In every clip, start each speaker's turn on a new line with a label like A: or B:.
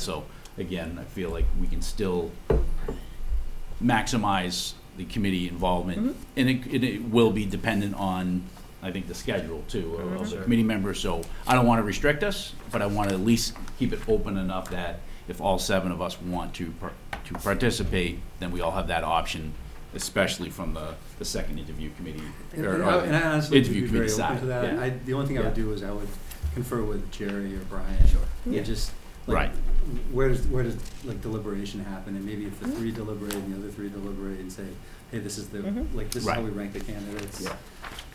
A: So again, I feel like we can still maximize the committee involvement. And it, and it will be dependent on, I think, the schedule too of- of the committee members. So I don't want to restrict us, but I want to at least keep it open enough that if all seven of us want to, par- to participate, then we all have that option, especially from the, the second interview committee.
B: And
A: or- uh,
B: and I Oh, and I honestly would
A: interview
B: be very
A: committee
B: open
A: side,
B: to that.
A: yeah.
B: I, the only thing I would do is I would confer with Jerry or Brian.
C: Yeah.
B: And just, like,
A: Right.
B: where does, where does, like, deliberation happen? And maybe if
D: Mm-hmm.
B: the three deliberate and the other three deliberate and say, hey, this is the,
C: Mhm.
D: Mm-hmm.
B: like, this is how
A: Right.
B: we rank the candidates.
A: Yeah.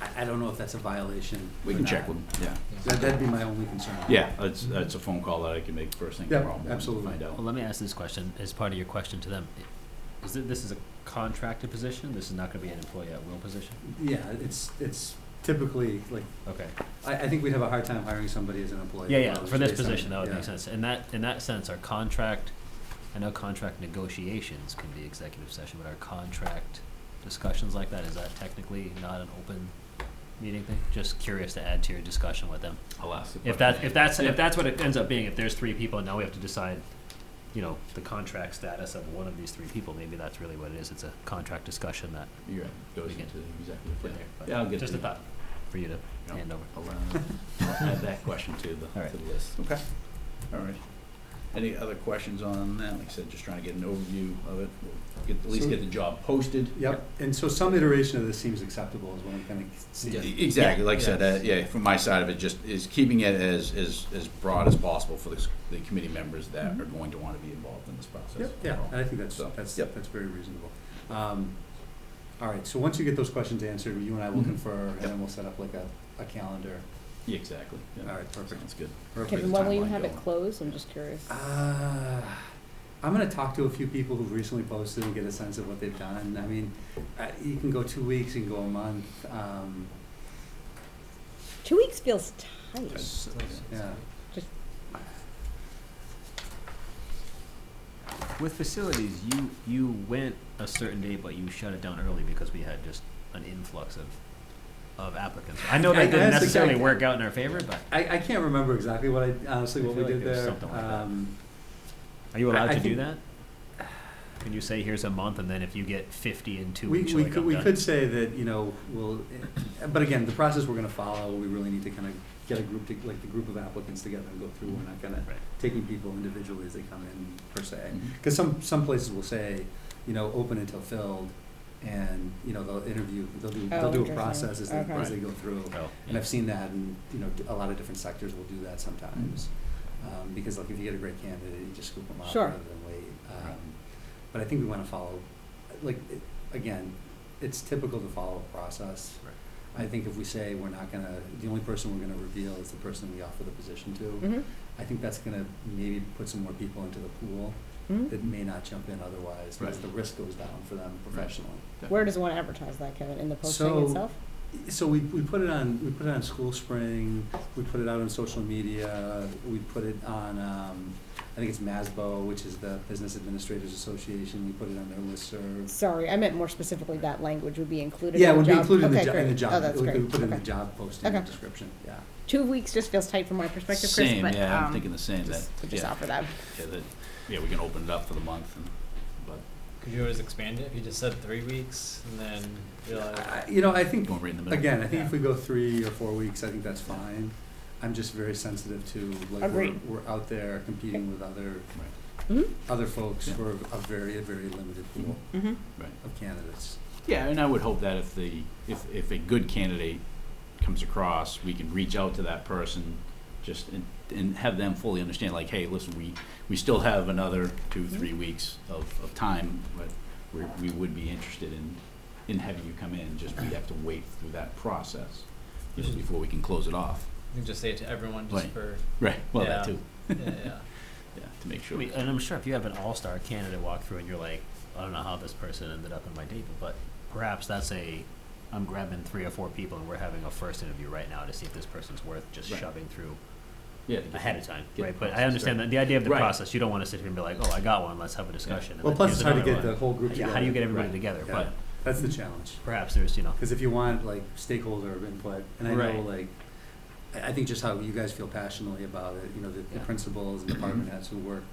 B: I, I don't know if that's a violation
A: We
B: or
A: can check
B: not.
A: with them, yeah.
B: That, that'd be my only concern.
A: Yeah, that's, that's a phone call that I can make first thing
B: Yeah,
A: tomorrow morning to
B: absolutely.
A: find out.
D: Well, let me ask this question as part of your question to them. Is it, this is a contracted position? This is not gonna be an employee at will position?
B: Yeah, it's, it's typically, like,
D: Okay.
B: I, I think we'd have a hard time hiring somebody as an employee.
D: Yeah, yeah,
B: Well,
D: for this
B: based on-
D: position, that would
B: yeah.
D: make sense. In that, in that sense, our contract, I know contract negotiations can be executive session, but our contract discussions like that, is that technically not an open meeting thing? Just curious to add to your discussion with them.
A: I'll ask. the
D: If
A: question.
D: that, if that's,
A: Yeah.
D: if that's what it ends up being, if there's three people, and now we have to decide, you know, the contract status of one of these three people, maybe that's really what it is, it's a contract discussion that
A: You're right, goes
D: We can-
A: into the executive.
D: put
A: yeah.
D: there, but
A: Yeah, I'll get
D: Just
A: to
D: a
A: you.
D: thought for you to
A: Yeah.
D: hand over.
A: I'll, uh, I'll add that question to the,
D: All right.
A: to the list. Okay. All right. Any other questions on that? Like I said, just trying to get an overview of it. We'll Get, at least
B: So-
A: get the job posted.
B: Yep, and so some iteration of this seems acceptable is what I'm kind of
A: E-
B: seeing.
A: Exactly, like I said, uh, yeah, from my side of it, just is keeping it as, as, as broad as possible for the, s- the committee members
C: Mm-hmm.
A: that are going to want to be involved in this process.
B: Yep, yeah, and
C: Uh,
B: I think that's,
A: So,
B: that's,
A: yep.
B: that's very reasonable. Um, All right, so once you get those questions answered, you and I will
A: Mhm.
B: confer, and
A: Yep.
B: then we'll set up like a, a calendar.
A: Yeah, Exactly.
B: All
A: yeah.
B: right, perfect.
A: Sounds good.
B: Perfect.
C: Kevin, when will you
A: Timeline
C: have it
A: going.
C: closed? I'm just curious.
B: Uh, I'm gonna talk to a few people who've recently posted and get a sense of what they've done. I mean, uh, you can go two weeks, you can go a month, um,
C: Two weeks feels tight.
A: That's-
B: yeah.
D: With facilities, you, you went a certain date, but you shut it down early because we had just an influx of, of applicants. I know
B: I- I
D: that didn't
B: asked the
D: necessarily
B: guy-
D: work out in our favor, but
B: I, I can't remember exactly what I, honestly,
D: I
B: what we
D: feel like
B: did
D: it was
B: there.
D: something like that.
B: Um,
D: are you
B: I-
D: allowed
B: I
D: to do
B: think-
D: that? Can you say, here's a month, and then if you get fifty in two
B: We,
D: weeks, you're
B: we
D: like,
B: could,
D: I'm
B: we
D: done?
B: could say that, you know, we'll, but again, the process we're gonna follow, we really need to kind of get a group, to like the group of applicants together and go through. We're not gonna,
D: Right.
B: taking people individually as they come in per se.
A: Mhm.
B: Because some, some places will say, you know, open until filled and, you know, they'll interview, they'll do, they'll
C: Oh,
B: do a
C: interesting.
B: process as they,
C: Okay.
B: as they go through.
D: Oh,
B: And
D: yeah.
B: I've seen that and, you know, a lot of different sectors will do that sometimes. Um, because like if you get a great candidate, you just scoop them up
C: Sure.
B: rather than wait.
A: Right.
B: Um, but I think we wanna follow, like, it- again, it's typical to follow a process.
D: Right.
B: I think if we say we're not gonna, the only person we're gonna reveal is the person we offer the position to,
C: Mhm,
B: I think that's gonna maybe put some more people into the pool
C: mhm.
B: that may not jump in otherwise, because
A: Right.
B: the risk goes down for them professionally.
C: Where does one advertise that, Kevin? In the
B: So-
C: posting itself?
B: So we, we put it on, we put it on School Spring, we put it out on social media, we put it on, um, I think it's MASBO, which is the Business Administrators Association, we put it on their listserv.
C: Sorry, I meant more specifically that language would be included in the
B: Yeah,
C: job.
B: it would be included in the
C: Okay,
B: job, in the
C: great.
B: job.
C: Oh, that's
B: We
C: great.
B: put it in the
C: Okay.
B: job posting
C: Okay.
B: description, yeah.
C: Two weeks just feels tight from my perspective, Chris,
A: Same,
C: but,
A: yeah, I'm
C: um,
A: thinking the same, that,
C: just, just
A: yeah,
C: offer that.
A: yeah, that, yeah, we can open it up for the month, and- but
E: Could you always expand it if you just said three weeks and then realize?
B: I- You know, I think
A: going right in the middle.
B: Again, I think if
E: Yeah.
B: we go three or four weeks, I think that's fine. I'm just very sensitive to, like, we're,
C: Agreed.
B: we're out there competing with other,
C: Mhm,
B: other folks
A: Yeah.
B: for a very, very limited pool
C: mhm.
A: Right.
B: of candidates.
A: Yeah, and I would hope that if the, if, if a good candidate comes across, we can reach out to that person, just, and, and have them fully understand, like, hey, listen, we, we still have another two, three weeks of, of time, but we, we would be interested in, in having you come in, just we have to wait through that process, you know, before we can close it off.
E: You can just say it to everyone just
A: Right.
E: for,
A: Right, well, that
E: Yeah.
A: too,
E: yeah, yeah.
A: yeah, to make
D: I
A: sure.
D: mean, and I'm sure if you have an all-star candidate walk through and you're like, I don't know how this person ended up in my table, but perhaps that's a, I'm grabbing three or four people and we're having a first interview right now to see if this person's worth just
A: Right.
D: shoving through
A: Yeah, to get
D: ahead of time,
A: get the
D: right? But I
A: process
D: understand that the idea of the
A: Right.
D: process, you don't want to sit here and be like, oh, I got one, let's have a discussion. and
B: Well,
D: then
B: plus
D: here's
B: it's hard to
D: another
B: get
D: one.
B: the whole group
D: Yeah,
B: together.
D: how do you get everybody
A: Right.
D: together?
B: Yeah.
D: But
B: That's the challenge,
D: perhaps there's, you know,
B: because if you want, like, stakeholder input, and I know,
D: Right.
B: like, I, I think just how you guys feel passionately about it, you know, the, the
D: Yeah.
B: principals and department heads who work